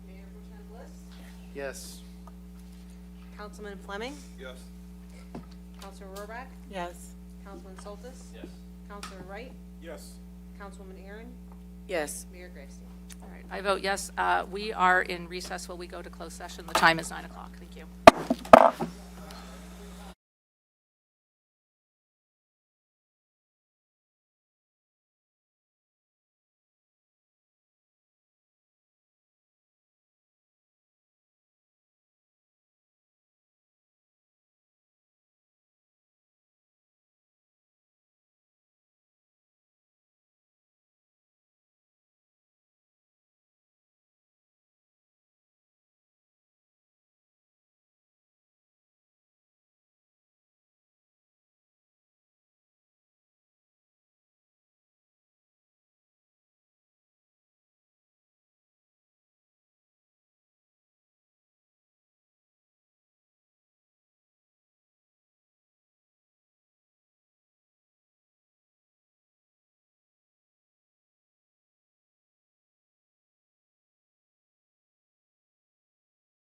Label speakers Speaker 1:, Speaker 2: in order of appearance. Speaker 1: Yes.
Speaker 2: Councilman Fleming,
Speaker 3: Yes.
Speaker 2: Councilor Rohrbach,
Speaker 4: Yes.
Speaker 2: Councilman Soltis,
Speaker 3: Yes.
Speaker 2: Councilor Wright,
Speaker 3: Yes.
Speaker 2: Councilwoman Aaron,
Speaker 4: Yes.
Speaker 2: Mayor Gravestein.
Speaker 5: All right, I vote yes. Uh, We are in recess while we go to closed session. The time is 9 o'clock. Thank you.